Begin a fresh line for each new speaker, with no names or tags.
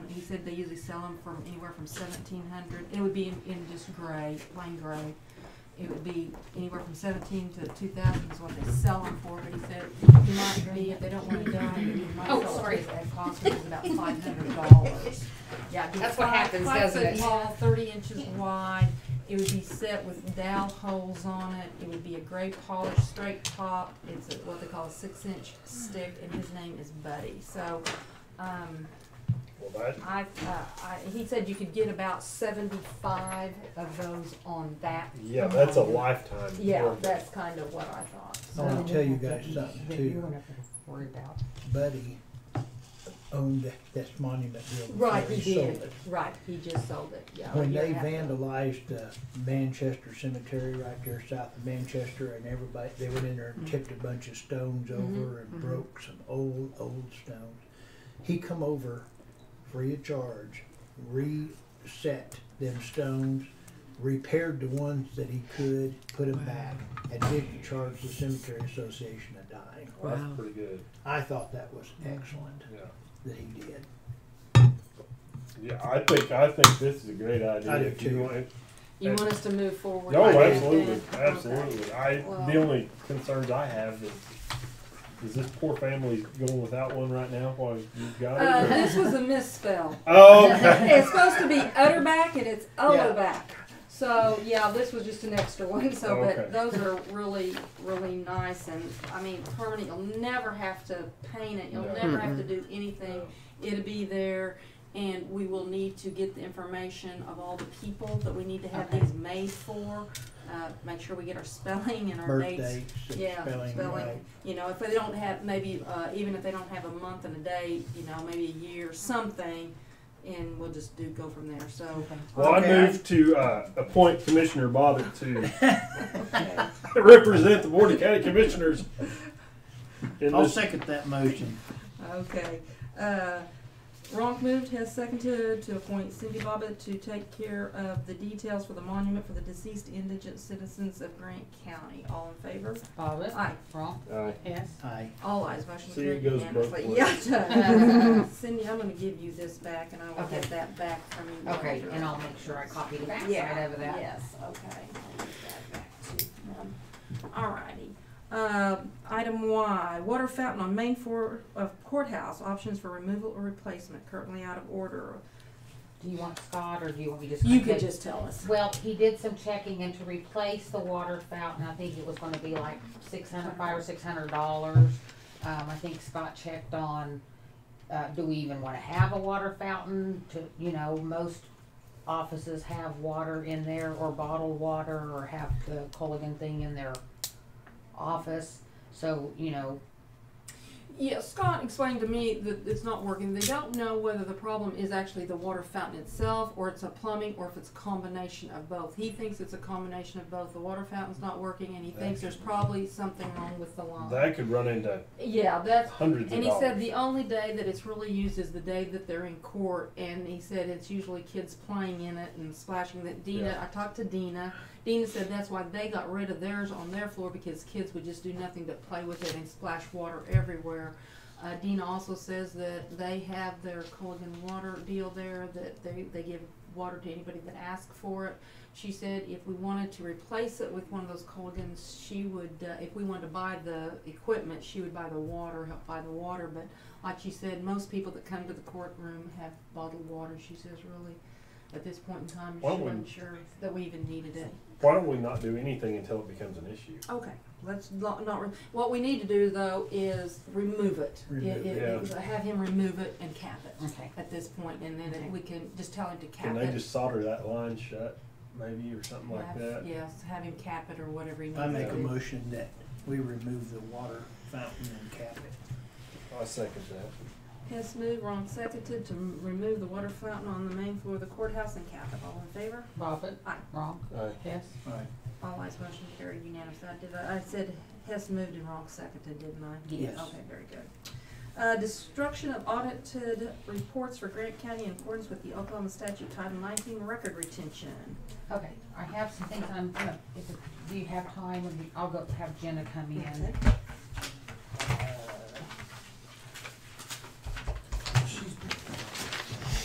said they usually sell them from anywhere from seventeen hundred, it would be in, in just gray, plain gray. It would be anywhere from seventeen to two thousand is what they sell them for, but he said it might be, if they don't wanna die, it might
Oh,
sell
sorry.
it at cost, which is about five hundred dollars. Yeah, it'd be
That's what
five-
happens, doesn't
Five
it?
foot tall, thirty inches wide, it would be set with dowel holes on it, it would be a gray polished straight top, it's a- what they call a six inch stick, and his name is Buddy, so, um,
Well, that,
I, uh, I, he said you could get about seventy-five of those on that.
yeah, that's a
alone.
lifetime.
Yeah,
order.
that's kind of what I thought,
I wanna
so,
tell you guys something
That you
too,
won't have to worry about.
Buddy owned that, this monument building. before
right, he
Oh. sold
did,
it.
right, he just sold it, yeah.
When
you're
they
half right.
vandalized the Manchester Cemetery right there south of Manchester and everybody, they went in there and
Mm-hmm.
tipped a bunch of stones over
mhm.
and broke some old, old stones. He come over free of charge, reset them stones, repaired the ones that he could, put them back, and didn't charge the cemetery association a dime.
Well,
Wow.
That's pretty good,
I thought that was excellent
yeah.
that he did.
Yeah, I think, I think this is a great idea.
I do
If you
too.
want-
You want us to move forward?
No,
with that
Oh, absolutely,
then? Okay.
absolutely. I, the
Well-
only concerns I have is, is this poor family going without one right now while you've got
Uh,
it? or-
this was a misspell.
Okay.
It's supposed to be Utterback and it's Ullaback. So, yeah, this was just an extra one, so,
Okay.
but those are really, really nice and, I mean, permanent, you'll never have to paint it, you'll
No.
never have to do anything. It'll be there and we will need to get the information of all the people that we need to have
Okay.
these made for. Uh, make sure we get our spelling and our
Birth
dates.
dates, and
Yeah,
spelling, right.
spelling, you know, if they don't have, maybe, uh, even if they don't have a month and a day, you know, maybe a year, something, and we'll just do, go from there, so.
Well, I
Okay.
move to, uh, appoint Commissioner Bobbitt to represent the Board of County Commissioners. in
I'll
this-
second that motion.
Okay, uh, Ronk moved, has seconded to appoint Cindy Bobbitt to take care of the details for the monument for the deceased indigent citizens of Grant County. All in favor?
Bobbit,
Aye.
wrong,
Aye.
yes.
Aye.
All ayes, motion
See, it
carried
goes both
unanimously.
ways.
Yeah, it does. Cindy, I'm gonna give you this back, and I will get
Okay.
that back from you.
Okay,
later.
and I'll make sure I copy the backside
Yeah,
of that.
Yes, okay. I'll give that back to him. Alrighty. Um, Item Y, water fountain on main floor of courthouse, options for removal or replacement, currently out of order.
Do you want Scott, or do you want me to?
You could
contact-
just tell us.
Well, he did some checking and to replace the water fountain, I think it was gonna be like six hundred, five or six hundred dollars. Um, I think Scott checked on, uh, do we even wanna have a water fountain to, you know, most offices have water in there or bottled water or have the Culligan thing in their office. So, you know,
Yeah, Scott explained to me that it's not working. They don't know whether the problem is actually the water fountain itself, or it's a plumbing, or if it's a combination of both. He thinks it's a combination of both. The water fountain's not working, and he thinks there's probably something wrong with the line.
That could run into
Yeah, that's
hundreds of
And he said
dollars.
the only day that it's really used is the day that they're in court, and he said it's usually kids playing in it and splashing. That Dina,
Yeah.
I talked to Dina. Dina said that's why they got rid of theirs on their floor because kids would just do nothing but play with it and splash water everywhere. Uh, Dina also says that they have their Culligan water deal there that they, they give water to anybody that asks for it. She said if we wanted to replace it with one of those Colgans, she would, uh, if we wanted to buy the equipment, she would buy the water, help buy the water. But like she said, most people that come to the courtroom have bottled water. She says really, at this point in time, she
Why don't we-
wasn't sure that we even needed it.
Why don't we not do anything until it becomes an issue?
Okay, let's not, not, re- what we need to do though is remove it. It-
Remove
it-
it.
it- Have him remove it and cap it
okay.
at this point, and
Okay.
then we can just tell him to cap
Can
it.
they just solder that line shut, maybe, or something like
Have-
that?
Yes, have him cap it or whatever he needs
I
to do.
make a motion that we remove the water fountain and cap it.
I second that.
Hess moved, Ron seconded to m- remove the water fountain on the main floor of the courthouse and cap it. All in favor?
Bobbit,
Aye.
wrong,
Aye.
yes.
Right.
All ayes, motion carried unanimously. I did, I said Hess moved and Ron seconded, didn't I?
Yes.
Okay, very good. Uh, destruction of audited reports for Grant County in accordance with the Oklahoma statute Title nineteen record retention.
Okay, I have some things I'm gonna, if, do you have time, I'll go have Jenna come in.